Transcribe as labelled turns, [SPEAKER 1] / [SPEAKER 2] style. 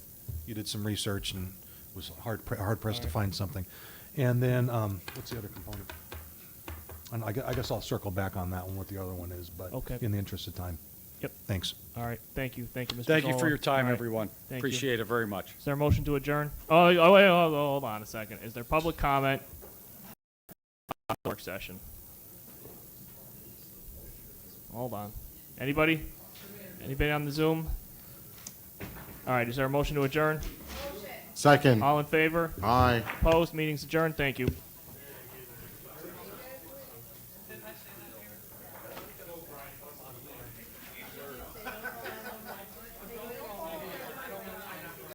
[SPEAKER 1] you did some research and was hard, pre- hard pressed to find something. And then, um, what's the other component? And I gue- I guess I'll circle back on that one, what the other one is, but
[SPEAKER 2] Okay.
[SPEAKER 1] in the interest of time.
[SPEAKER 2] Yep.
[SPEAKER 1] Thanks.
[SPEAKER 2] All right. Thank you. Thank you, Mr.
[SPEAKER 3] Thank you for
[SPEAKER 2] Zola.
[SPEAKER 3] your time,
[SPEAKER 2] All right.
[SPEAKER 3] everyone.
[SPEAKER 2] Thank you.
[SPEAKER 3] Appreciate it very much.
[SPEAKER 2] Is there a motion to adjourn? Oh, oh, wait, hold, hold on a second. Is there public comment? Work session. Hold on. Anybody? Anybody on the Zoom? All right. Is there a motion to adjourn?
[SPEAKER 4] Second.
[SPEAKER 2] All in favor?
[SPEAKER 4] Aye.
[SPEAKER 2] Opposed? Meeting's adjourned. Thank you.